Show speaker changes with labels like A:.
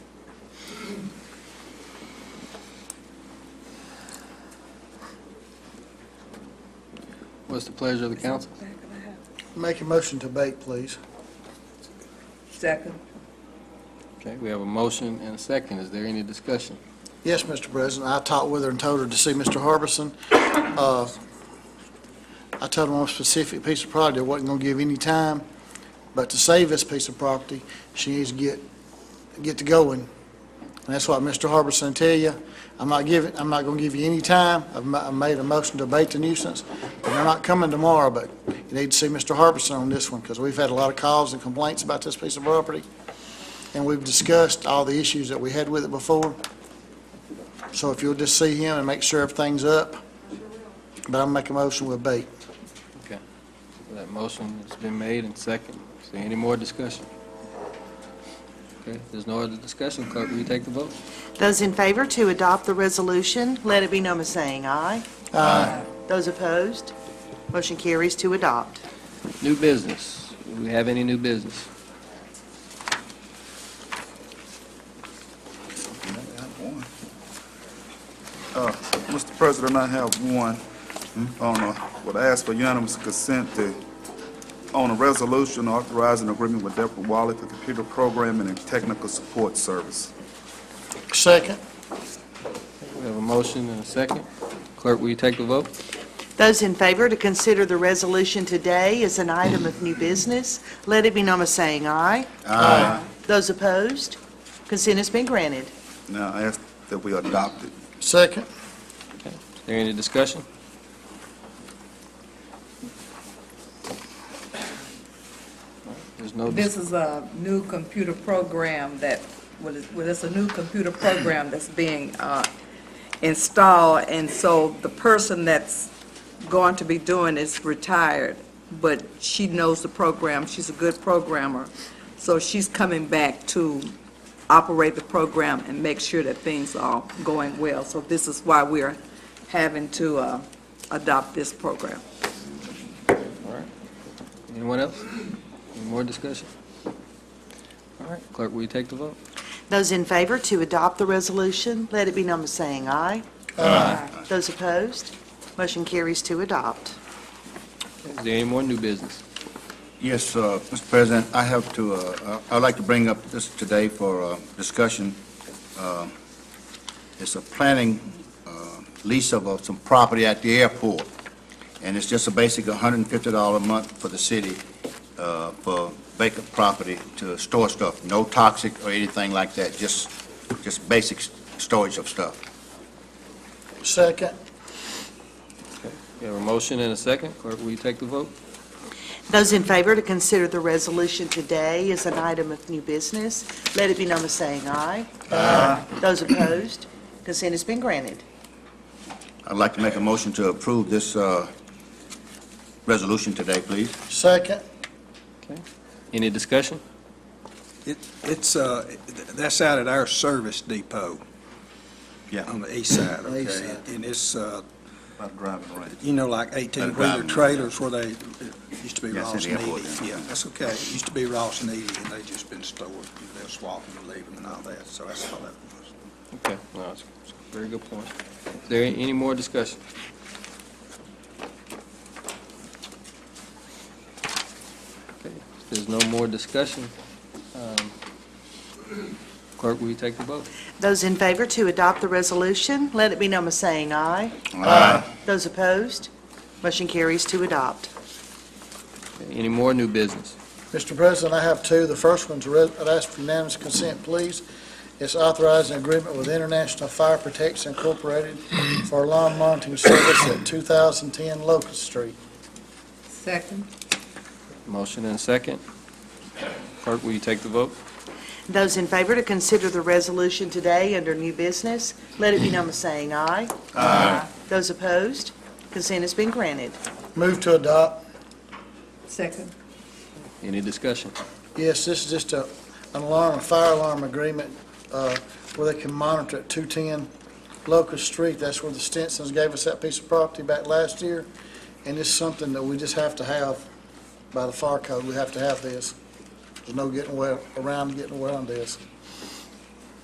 A: What's the pleasure of the council?
B: Make a motion to abate, please.
C: Second.
A: Okay, we have a motion and a second. Is there any discussion?
B: Yes, Mr. President, I talked with her and told her to see Mr. Harbison. Uh, I told him on a specific piece of property, I wasn't going to give any time, but to save this piece of property, she needs to get, get to going. And that's what Mr. Harbison tell you, I'm not giving, I'm not going to give you any time, I've ma- I made a motion to abate the nuisance, and they're not coming tomorrow, but you need to see Mr. Harbison on this one, because we've had a lot of calls and complaints about this piece of property, and we've discussed all the issues that we had with it before. So if you'll just see him and make sure everything's up, but I'll make a motion with bait.
A: Okay. That motion has been made and second. Is there any more discussion? Okay, if there's no other discussion. Clerk, will you take the vote?
D: Those in favor to adopt the resolution, let it be known by saying aye. Aye. Those opposed, motion carries to adopt.
A: New business. Do we have any new business?
E: Uh, Mr. President, I have one on a, would ask for unanimous consent to, on a resolution authorizing agreement with Deborah Wally for computer programming and technical support service.
B: Second?
A: We have a motion and a second. Clerk, will you take the vote?
D: Those in favor to consider the resolution today as an item of new business, let it be known by saying aye. Aye. Those opposed, consent has been granted.
E: Now, I ask that we adopt it.
B: Second?
A: Is there any discussion? There's no, dis-
C: This is a new computer program that, well, it's- well, it's a new computer program that's being uh, installed, and so the person that's going to be doing it's retired, but she knows the program, she's a good programmer, so she's coming back to operate the program and make sure that things are going well. So this is why we're having to uh, adopt this program.
A: anyone else? Any more discussion? All right, clerk, will you take the vote?
D: Those in favor to adopt the resolution, let it be known by saying aye. Aye. Those opposed, motion carries to adopt.
A: Is there any more new business?
F: Yes, uh, Mr. President, I have to, uh, uh, I'd like to bring up this today for uh, discussion. Uh, It's a planning uh, lease of uh, some property at the airport, and it's just a basic $150 a month for the city uh, for vacant property to store stuff, no toxic or anything like that, just, just basic s- storage of stuff.
B: Second?
A: We have a motion and a second. Clerk, will you take the vote?
D: Those in favor to consider the resolution today as an item of new business, let it be known by saying aye. Aye. Those opposed, consent has been granted.
F: I'd like to make a motion to approve this uh, resolution today, please.
B: Second?
A: Any discussion?
G: It, it's, uh, th- that's out at our service depot
F: Yeah.
G: on the east side,
B: East
G: okay?
B: side.
G: And it's, uh,
F: About driving range.
G: you know, like eighteen-wheeler
F: driving.
G: trailers where they, it used to be
F: Yes, in
G: Ross
F: the
G: and
F: airport,
G: Eady.
F: yeah.
G: Yeah, that's okay. It used to be Ross and Eady, and they just been stored. You know, They'll swap them and leave them and all that, so that's all that was.
A: Okay, no, that's that's a very good point. Is there any more discussion? Okay, if there's no more discussion, um, clerk, will you take the vote?
D: Those in favor to adopt the resolution, let it be known by saying aye. Those opposed, motion carries to adopt.
A: Okay, Any more new business?
B: Mr. President, I have two. The first one's, a res- I'd ask for unanimous consent, please. It's authorizing agreement with International Fire Protection Incorporated for lawn monitoring service at 2010 Locust Street.
C: Second.
A: Motion and second. Clerk, will you take the vote?
D: Those in favor to consider the resolution today under new business, let it be known by saying aye. Aye. Those opposed, consent has been granted.
B: Move to adopt.
C: Second.
A: Any discussion?
B: Yes, this is just a, an alarm, a fire alarm agreement, uh, where they can monitor at 210 Locust Street. That's where the Stinsons gave us that piece of property back last year, and it's something that we just have to have by the fire code. We have to have this. There's no getting away, around getting around this.